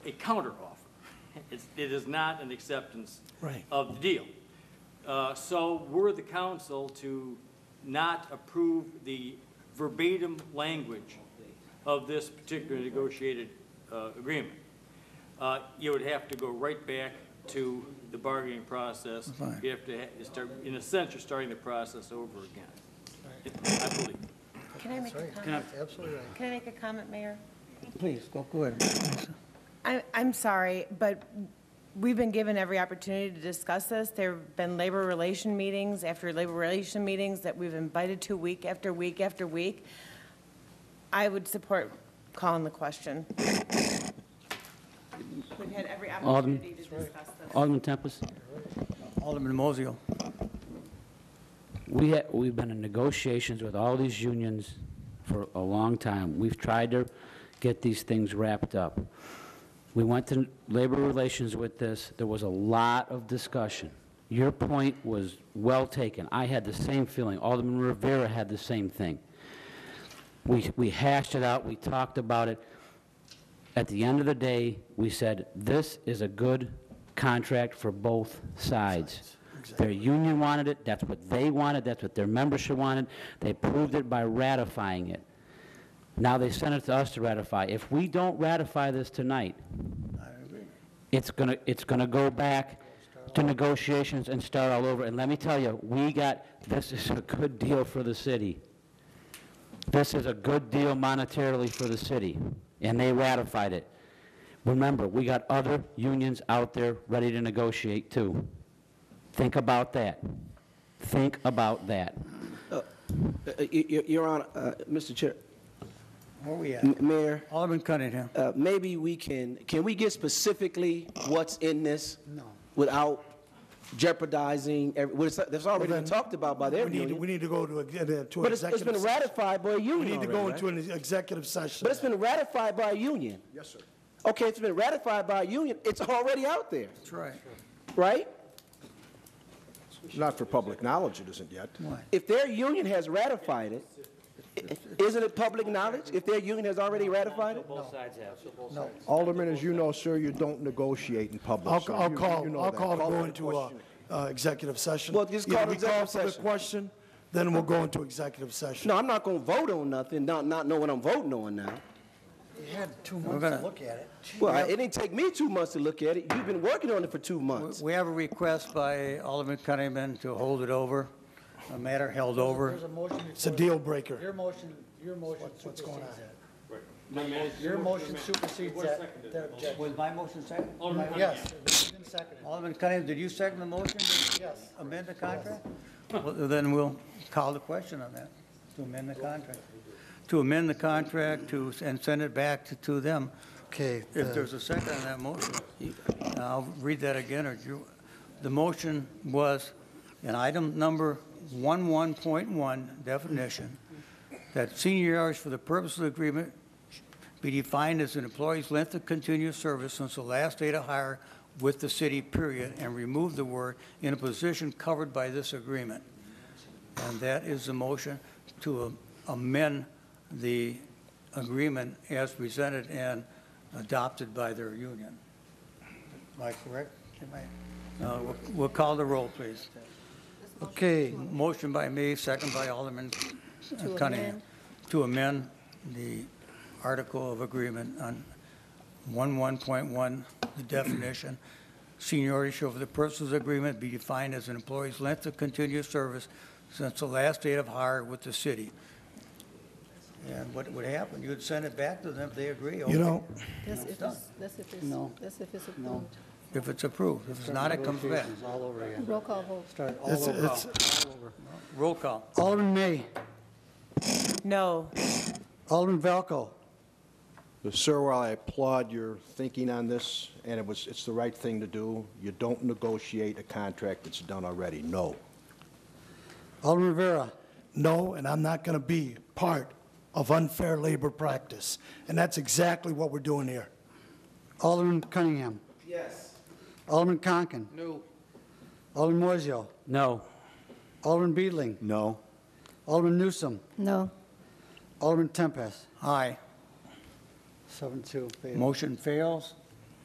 a counteroffer. It's- It is not an acceptance Right. of the deal. Uh, So were the council to not approve the verbatim language of this particular negotiated uh, agreement, uh, you would have to go right back to the bargaining process. Fine. You have to ha- start, in a sense, you're starting the process over again, I believe. Can I make a That's comment? right, absolutely right. Can I make a comment, Mayor? Please, go, go ahead. Lisa. I, I'm sorry, but we've been given every opportunity to discuss this. There've been labor relation meetings after labor relation meetings that we've invited to week after week after week. I would support calling the question. We've had every Alderman. opportunity to discuss this. Alderman Tempest, Alderman Mosio. we ha we've been in negotiations with all these unions for a long time. We've tried to get these things wrapped up. We went to labor relations with this, there was a lot of discussion. Your point was well taken. I had the same feeling, Alderman Rivera had the same thing. We, we hashed it out, we talked about it. At the end of the day, we said, this is a good contract for both sides. Their union wanted it, that's what they wanted, that's what their membership wanted. They proved it by ratifying it. Now they sent it to us to ratify. If we don't ratify this tonight, it's gonna, it's gonna go back to negotiations and start all over. And let me tell you, we got, this is a good deal for the city. This is a good deal monetarily for the city, and they ratified it. Remember, we got other unions out there ready to negotiate too. Think about that. Think about that. Uh, y- y- Your Honor, uh, Mr. Chair, Where we at? M- Mayor, Alderman Cunningham. uh, maybe we can, can we get specifically what's in this? No. Without jeopardizing, every- well, it's- that's already been talked about by their We need to- We union. need to go to, a- to an But it's it's executive been session. ratified by a We union need to go already, into right? an executive session. But it's been ratified by a union. Yes, sir. Okay, it's been ratified by a union, it's already out there, That's right. right? Not for public knowledge, it isn't yet. What? If their union has ratified it, i- isn't it public knowledge if their union has already ratified it? Alderman, as you know, sir, you don't negotiate in public. I'll, sir. I'll You- you call, know I'll that. call to for go the into a, question. uh, executive session. Well, just Either call it executive We call for the session. question, then we'll go into executive session. No, I'm not going to vote on nothing, not, not knowing I'm voting on now. You had two months to gonna- look at it. Well, it didn't take me two months to look at it. You've been working on it for two months. We have a request by Alderman Cunningham to hold it over, a matter held over. There's a motion It's a before- deal breaker. Your motion, your motion what's going supersedes that. Your motion supersedes that, that objection. Was my motion second? Yes, it was even seconded. Alderman Cunningham, did you second the motion to Yes. amend the contract? Well, Then we'll call the question on that, to amend the contract. To amend the contract to, and send it back to- to them. Okay. If there's a second on that motion, I'll read that again, or you, the motion was in item number 11.1 definition, that senior hours for the purpose of the agreement be defined as an employee's length of continuous service since the last date of hire with the city, period, and remove the word in a position covered by this agreement. And that is the motion to amend the agreement as presented and adopted by their union. Am I correct? Am I- Uh, we'll- We'll call the roll, please. Okay. Motion by me, second by Alderman Cunningham. amend. To amend the article of agreement on 11.1, the definition. Seniority shall for the purposes of the agreement be defined as an employee's length of continuous service since the last date of hire with the city. And what would happen, you'd send it back to them if they agree. You know, That's it's if done. it's, that's if No. it's, that's if it's approved. If it's approved, if it's not, it comes back. Roll call vote. it's, it's, Roll call. Alderman May, No, Alderman Valco, But, Sir, while I applaud your thinking on this, and it was, it's the right thing to do, you don't negotiate a contract that's done already, no. Alderman Rivera, no, and I'm not going to be part of unfair labor practice. And that's exactly what we're doing here. Alderman Cunningham. Yes. Alderman Conken. No. Alderman Moiseo, No. Alderman Beedling, No. Alderman Newsom, No. Alderman Tempest, Aye. seven two. Motion fails.